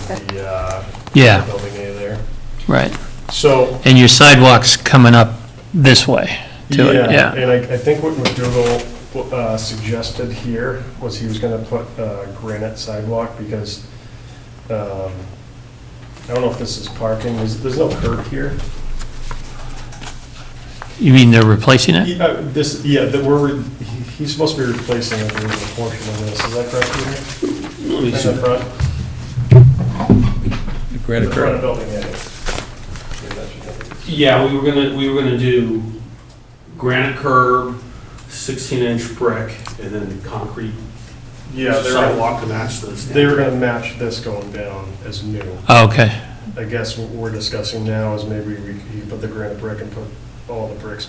the, uh, Yeah. Building A there. right. So, And your sidewalk's coming up this way to it, yeah, yeah. and I, I think what McDougal uh, suggested here was he was gonna put uh, granite sidewalk because, um, I don't know if this is parking, there's, there's no curb here. You mean they're replacing it? Yeah, uh, This, yeah, that we're, re- he- he's supposed to be replacing a portion of this, is that correct, Peter? In the front? The front Granite curb. of building, yeah. Yeah, that should help. Yeah, we were gonna, we were gonna do granite curb, sixteen inch brick, and then concrete Yeah, they're, sidewalk to match this. they were gonna match this going down as new. Oh, okay, I guess what we're discussing now is maybe we, you put the granite brick and put all the bricks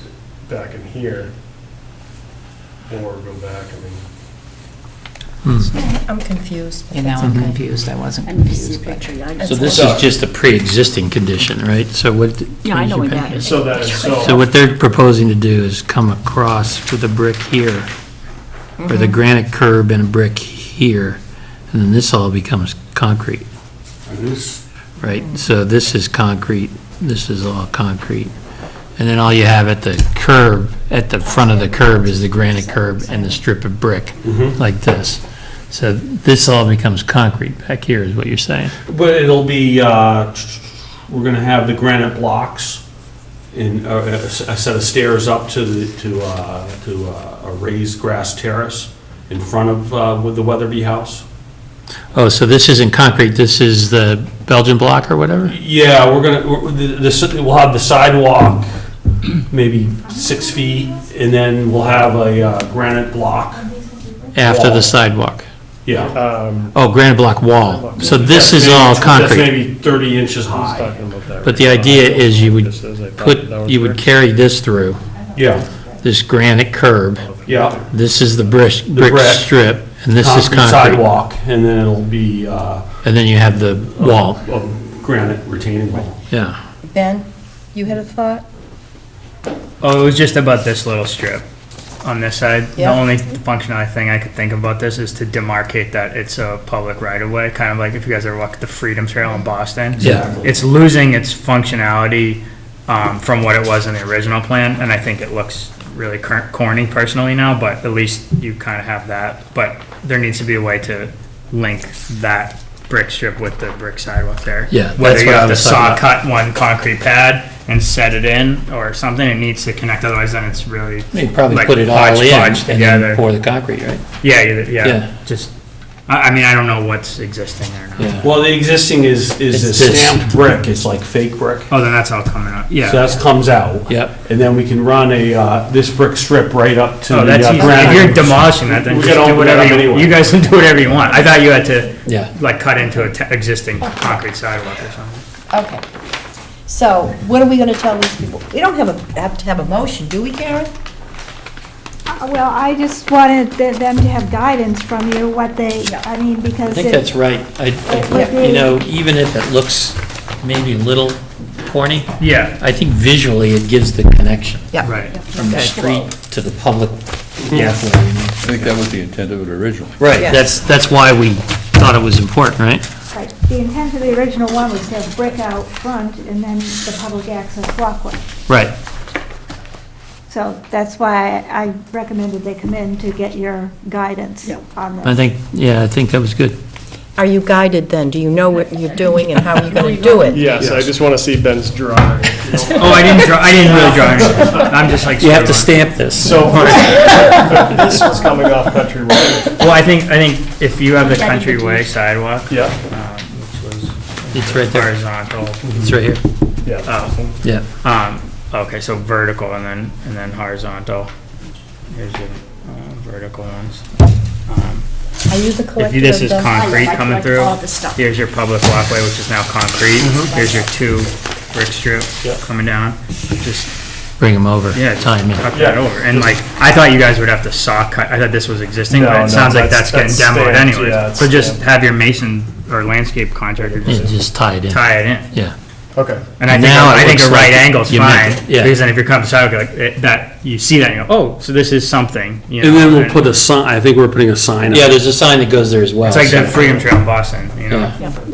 back in here. Or go back, I mean, I'm confused. but Yeah, now that's I'm okay. confused, I wasn't Mm-hmm. I'm just confused, but picturing, I so just- this is just a pre-existing condition, right? So what? Yeah, I know what that is. so that is, So so, what they're proposing to do is come across with a brick here, or Mm-hmm. the granite curb and a brick here, and then this all becomes concrete, And this, right? So this is concrete, this is all concrete. And then all you have at the curb, at the front of the curb is the granite curb and the strip of brick, Mm-hmm. like this. So this all becomes concrete back here, is what you're saying? but it'll be, uh, we're gonna have the granite blocks and uh, a s- a set of stairs up to the, to, uh, to uh, a raised grass terrace in front of, uh, with the Weatherby House. Oh, so this isn't concrete, this is the Belgian block or whatever? Yeah, we're gonna, we're- the- the, si- we'll have the sidewalk, maybe six feet, and then we'll have a uh, granite block, After Wall. the sidewalk? yeah. um, Oh, granite block wall. So this is Maybe- all That's concrete, maybe 30 inches I was high. talking about that. but the idea is you would Just as I thought put, that was you would there. carry this through, Yeah, this granite curb, yeah. this is the brick, brick brick. strip, and this is concrete. Sidewalk, and then it'll be uh, And then you have the wall, a granite retaining wall. yeah. Ben, you had a thought? Oh, it was just about this little strip on this side. The Yeah. only functional thing I could think about this is to demarcate that it's a public right of way, kind of like if you guys ever walked the Freedom Trail in Boston. Yeah. It's losing its functionality um, from what it was in the original plan, and I think it looks really cor- corny personally now, but at least you kind of have that. But there needs to be a way to link that brick strip with the brick sidewalk there. Yeah, Whether that's you what I have the was saw talking about. cut one concrete pad and set it in or something, it needs to connect, otherwise then it's really. You probably like put it all in and hodgepodge then Together. pour the concrete, right? Yeah, you- Yeah. yeah, just, I, I mean, I don't know what's existing there now. Yeah. Well, the existing is, is a It's this. stamped brick, it's like fake brick. Oh, then that's all coming up, yeah. So that comes out. Yep. And then we can run a, uh, this brick strip right up to the Oh, uh, that's granite. easy. If you're demolishing that, then We just gotta do open that whatever up you, anyway. you guys can do whatever you want. I thought you had to, Yeah. like, cut into a te- existing concrete sidewalk or something. Okay. So what are we going to tell these people? We don't have a, have to have a motion, do we, Karen? Uh, Well, I just wanted th- them to have guidance from you, what they, Yeah. I mean, because. I think it- that's right. I, I- you know, even if it looks maybe a little corny, Yeah, I think visually it gives the connection Yeah. right. from the Okay. street to the public Yeah. walkway, you know? I think that was the intent of it originally. Right, Yes. that's, that's why we thought it was important, right? right. The intent of the original one was to have brick out front and then the public access walkway. Right. So that's why I recommended they come in to get your guidance Yeah. on this. I think, yeah, I think that was good. Are you guided then? Do you know what you're doing and how you're going to do it? Yes, I just wanna see Ben's drawing. Oh, I didn't draw, I didn't really draw anything. I'm just like. You have to scribbling. stamp this. So, this was coming off Country Road, Well, I think, I think if you have the countryway sidewalk, yeah, um, which was. It's right there. Horizontal. It's right here. yeah. Oh, Yeah. um, okay, so vertical and then, and then horizontal. Here's your, uh, vertical ones. Um, Are you the If collector you- of this is the- concrete I coming like through, all this stuff. here's your public walkway, which is now concrete, here's your two brick strip coming down, just, Bring them over. yeah, just Time in. tuck that over. And like, I thought you guys would have to saw cut, I thought this was existing, No, but no, it sounds like that's- that's getting that's demoed stamped, yeah, anyways. it's So just stamped. have your mason or landscape contractor Yeah, just just tie it in. tie it in. Yeah. Okay, And I think, Now it I think a looks right like angle's you meant fine, it, yeah. because then if you're coming south, like, it- that, you see that, and you go, oh, so this is something, you know. And then we'll put a sign, I think we're putting a sign up. Yeah, there's a sign that goes there as well. It's like so- that Freedom Trail in Boston, you know? Yeah.